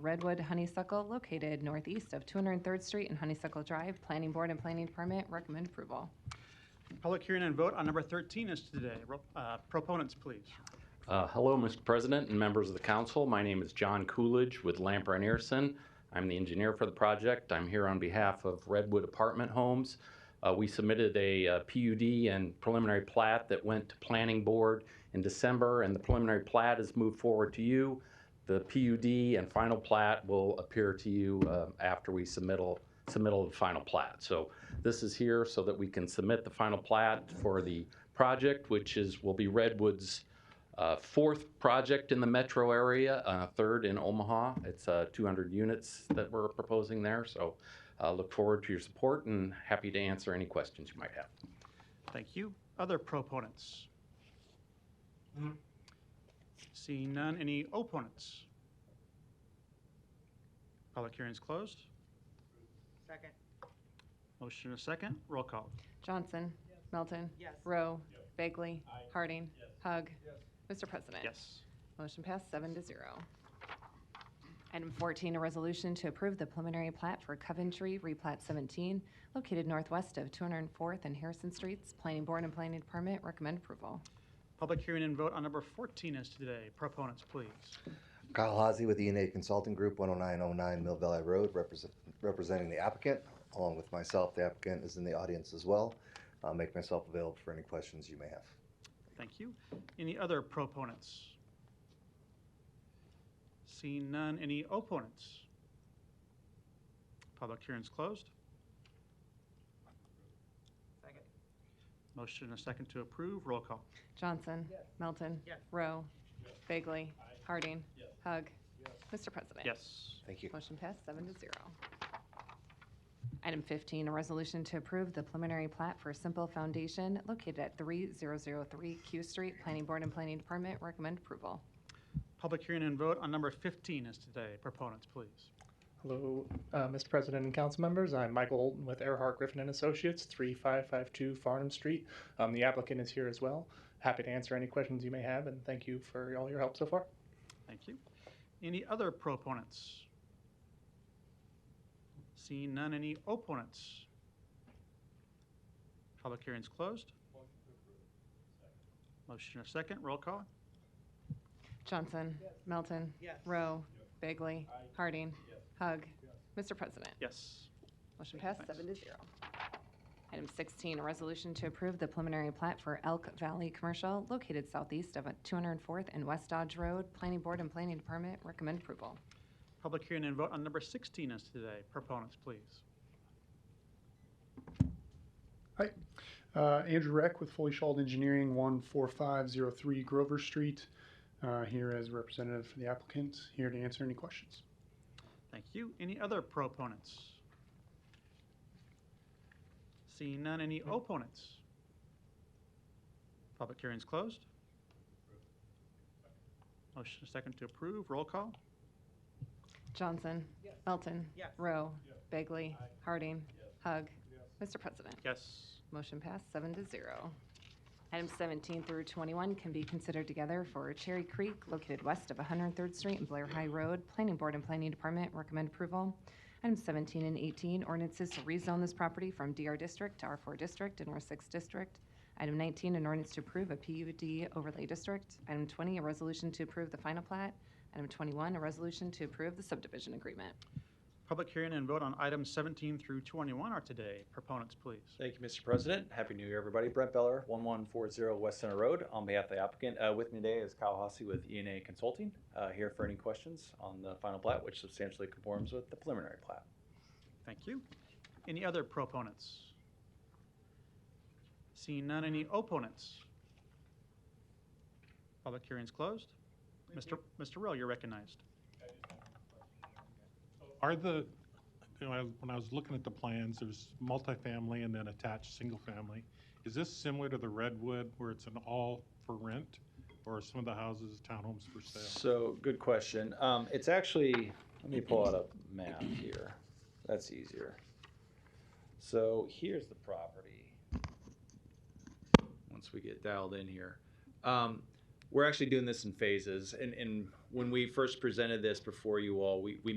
Redwood Honeysuckle located northeast of 203rd Street and Honeysuckle Drive. Planning Board and Planning Department recommend approval. Public hearing and vote on number 13 is today. Ro- uh, Proponents, please. Uh, Hello, Mr. President and members of the council. My name is John Coolidge with Lamper and Earson. I'm the engineer for the project. I'm here on behalf of Redwood Apartment Homes. Uh, We submitted a uh, PUD and preliminary plat that went to Planning Board in December, and the preliminary plat is moved forward to you. The PUD and final plat will appear to you uh, after we submittal, submittal of final plat. So this is here so that we can submit the final plat for the project, which is, will be Redwood's uh, fourth project in the metro area, uh, third in Omaha. It's uh, 200 units that we're proposing there. So uh, look forward to your support and happy to answer any questions you might have. Thank you. Other proponents? Seeing none, any opponents? Public hearing is closed. Second, Motion and a second, roll call. Johnson. Melton. yes. Rowe. Bagley. Harding. Hug. Mr. President. Yes. Motion passed seven to zero. Item 14, a resolution to approve the preliminary plat for Coventry Replat 17, located northwest of 204th and Harrison Streets. Planning Board and Planning Department recommend approval. Public hearing and vote on number 14 is today. Proponents, please. Kyle Hazy with ENA Consulting Group, 10909 Mill Valley Road, represent- representing the applicant. Along with myself, the applicant is in the audience as well. I'll make myself available for any questions you may have. Thank you. Any other proponents? Seeing none, any opponents? Public hearing is closed. Second, Motion and a second to approve, roll call. Johnson. Melton. Yes. Rowe. Bagley. Harding. Hug. Mr. President. Yes. Thank you. Motion passed seven to zero. Item 15, a resolution to approve the preliminary plat for Simple Foundation located at 3003 Q Street. Planning Board and Planning Department recommend approval. Public hearing and vote on number 15 is today. Proponents, please. Hello, uh, Mr. President and council members. I'm Michael Olton with Earhart Griffin and Associates, 3552 Farnham Street. Um, The applicant is here as well. Happy to answer any questions you may have, and thank you for all your help so far. Thank you. Any other proponents? Seeing none, any opponents? Public hearing is closed. Motion and a second, roll call. Johnson. Melton. yes. Rowe. Bagley. Harding. Hug. Mr. President. Yes. Motion Thank you, passed seven to zero. Item 16, a resolution to approve the preliminary plat for Elk Valley Commercial located southeast of 204th and West Dodge Road. Planning Board and Planning Department recommend approval. Public hearing and vote on number 16 is today. Proponents, please. Uh, Andrew Reck with Fully Shawled Engineering, 14503 Grover Street, uh, here as representative for the applicant, here to answer any questions. Thank you. Any other proponents? Seeing none, any opponents? Public hearing's closed. Motion is second to approve, roll call. Johnson. Melton. Yes. Rowe. Bagley. Harding. Hug. Mr. President. Yes. Motion passed seven to zero. Items 17 through 21 can be considered together for Cherry Creek located west of 103rd Street and Blair High Road. Planning Board and Planning Department recommend approval. Items 17 and 18, ordinances to rezone this property from DR District to R4 District and R6 District. Item 19, an ordinance to approve a PUD overlay district. Item 20, a resolution to approve the final plat. Item 21, a resolution to approve the subdivision agreement. Public hearing and vote on items 17 through 21 are today. Proponents, please. Thank you, Mr. President. Happy New Year, everybody. Brent Beller, 1140 West Center Road, on behalf of the applicant. Uh, With me today is Kyle Hossie with ENA Consulting, uh, here for any questions on the final plat, which substantially conforms with the preliminary plat. Thank you. Any other proponents? Seeing none, any opponents? Public hearing's closed. Mr. Mr. Rowe, you're recognized. Are the, you know, I- when I was looking at the plans, there's multifamily and then attached, single-family. Is this similar to the Redwood where it's an all for rent? Or are some of the houses townhomes for sale? So, good question. Um, It's actually, let me pull out a map here. That's easier. So here's the property. Once we get dialed in here. Um, We're actually doing this in phases, and, and when we first presented this before you all, we, we